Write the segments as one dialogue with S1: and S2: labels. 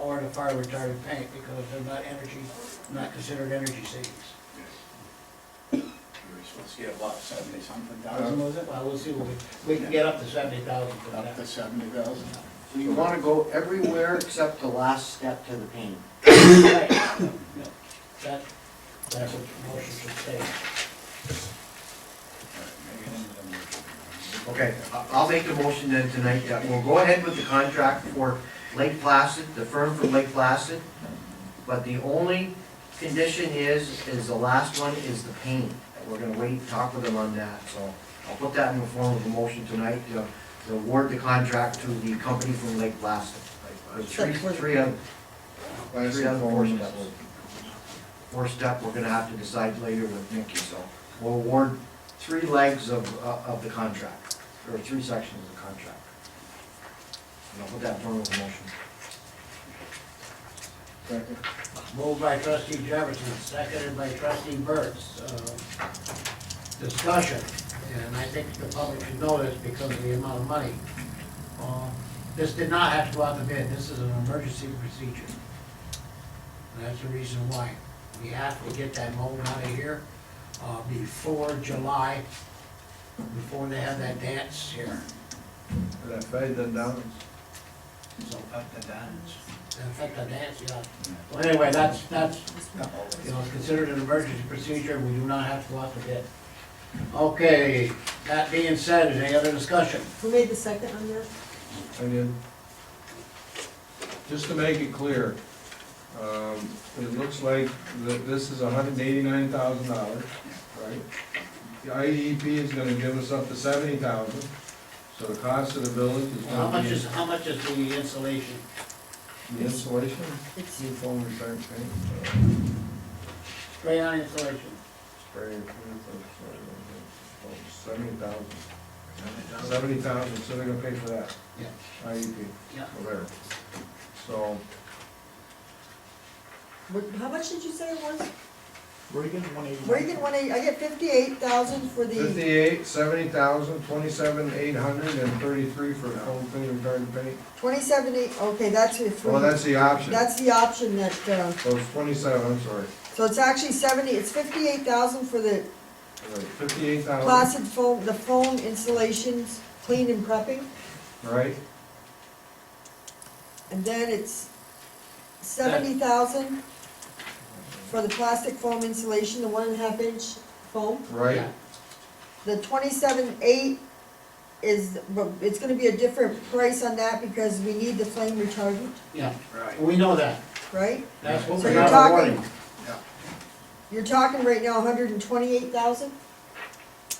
S1: a fire retardant paint because they're not energy, not considered energy savings.
S2: We were supposed to get about seventy something thousand, was it?
S1: Well, we'll see, what we, we can get up to seventy thousand for
S2: Up to
S1: that.
S2: seventy thousand?
S3: So you wanna go everywhere except the last step to the paint.
S1: Right. That, that's what the motion should say.
S3: Okay, I- I'll make the motion then tonight that we'll go ahead with the contract for Lake Placid, the firm from Lake Placid. But the only condition is, is the last one is the paint. We're gonna wait, and talk with them on that, so I'll put that in the form of a motion tonight to to award the contract to the company from Lake Placid. There's Three, three of, three other four steps. Four step, we're gonna have to decide later with Nikki, so we'll award three legs of, uh, of the contract, or three sections of the contract. And I'll put that in form of a motion.
S2: Second.
S1: Moved by trustee Jefferson, seconded by trustee Burns. Uh, Discussion, and I think the public should know this because of the amount of money. Uh, This did not have to go out to bid, this is an emergency procedure. And that's the reason why. We have to get that mold out of here uh, before July, before they have that dance here.
S4: That fade and down.
S1: So,
S2: Up to downs.
S1: in effect, that dance, yeah. Well, anyway, that's, that's You know, it's considered an emergency procedure, we do not have to go out to bid. Okay, that being said, any other discussion?
S5: Who made the second on that?
S4: And then, just to make it clear, um, it looks like that this is hundred and eighty-nine thousand dollars, right? The IDEP is gonna give us up to seventy thousand, so the cost of the building is
S1: How
S4: gonna
S1: much
S4: be
S1: is, how much is the installation?
S4: the insulation,
S5: It's
S4: heat foam return paint, uh,
S1: Spray on installation?
S4: spray, uh, seventy thousand. Seventy thousand, so they're gonna pay for that.
S1: Yeah.
S4: IEP,
S1: Yeah.
S4: or there. So,
S5: what, how much did you say it was?
S2: Reagan, one eighty.
S5: Reagan one eighty, I get fifty-eight thousand for the,
S4: Fifty-eight, seventy thousand, twenty-seven, eight hundred and thirty-three for the whole thing regarding paint.
S5: twenty-seven eight, okay, that's your three.
S4: Well, that's the option.
S5: That's the option that, uh,
S4: So it's twenty-seven, I'm sorry.
S5: so it's actually seventy, it's fifty-eight thousand for the
S4: Fifty-eight thousand,
S5: placid foam, the foam installations, clean and prepping,
S4: right?
S5: and then it's seventy thousand for the plastic foam insulation, the one and a half inch foam.
S4: Right?
S1: Yeah.
S5: The twenty-seven eight is, but it's gonna be a different price on that because we need the flame retardant,
S1: Yeah,
S2: Right.
S1: we know that,
S5: right?
S1: that's what
S5: So
S1: Oh, we
S5: you're
S1: got.
S5: talking,
S2: Yeah.
S5: you're talking right now hundred and twenty-eight thousand?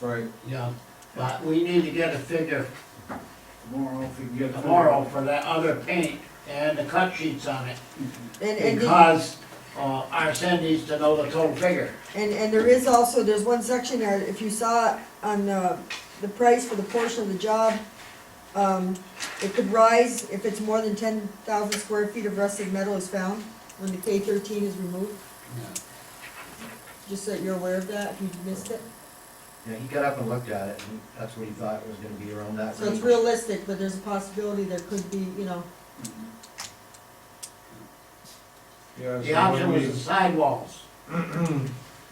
S4: Right.
S1: Yeah, but we need to get a figure
S2: Tomorrow, if we can get.
S1: tomorrow for that other paint and the cut sheets on it.
S5: And, and, the-
S1: Because, uh, our send needs to know the total figure.
S5: and, and there is also, there's one section there, if you saw it on the, the price for the portion of the job, um, it could rise if it's more than ten thousand square feet of rusted metal is found when the K thirteen is removed, just so that you're aware of that, if you missed it.
S3: Yeah, he got up and looked at it, and that's what he thought was gonna be around that.
S5: So it's
S3: range.
S5: realistic, but there's a possibility there could be, you know,
S4: Yeah.
S1: The
S4: so
S1: option
S4: when
S1: was the sidewalls.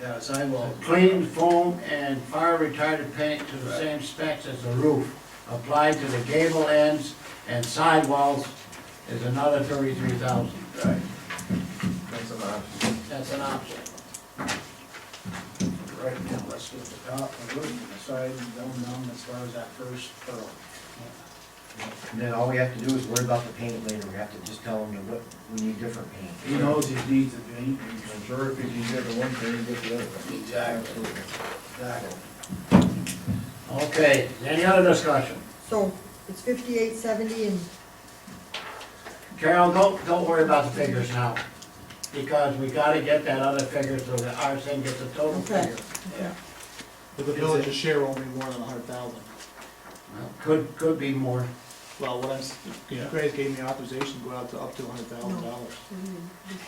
S2: Yeah, sidewalk.
S1: Clean foam and fire retardant paint to the same specs as the roof, applied to the gable ends and sidewalls is another thirty-three thousand.
S2: Right.
S4: we- That's an option.
S1: That's an option.
S2: Right now, let's get the top, the roof, and the side, and going down as far as that first pearl.
S3: And then all we have to do is worry about the paint later, we have to just tell them that what- we need different paint.
S2: He knows his needs of being.
S4: I'm sure if you can get the one thing, you get the other one.
S2: Exactly.
S4: Absolutely.
S2: Exactly.
S1: Okay, any other discussion?
S5: so it's fifty-eight seventy and,
S1: Carol, don't, don't worry about the figures now, because we gotta get that other figure so that our thing gets a total
S5: Okay.
S1: figure.
S2: Yeah.
S6: But the village's share won't be more than a hundred thousand.
S1: Well, Could, could be more.
S6: Well, what I'm, s- Craig gave me authorization to go out to up to a hundred thousand dollars.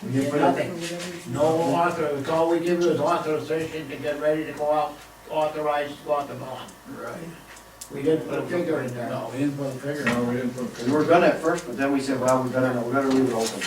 S3: We didn't put
S1: Nothing.
S3: it-
S1: No author, it's all we give you is authorization to get ready to go out, authorized to go out the bond.
S2: Right.
S1: We didn't put a figure in there.
S2: No, we didn't put a figure.
S4: No, we didn't put.
S3: We were gonna at first, but then we said, well, we better, we better leave it open.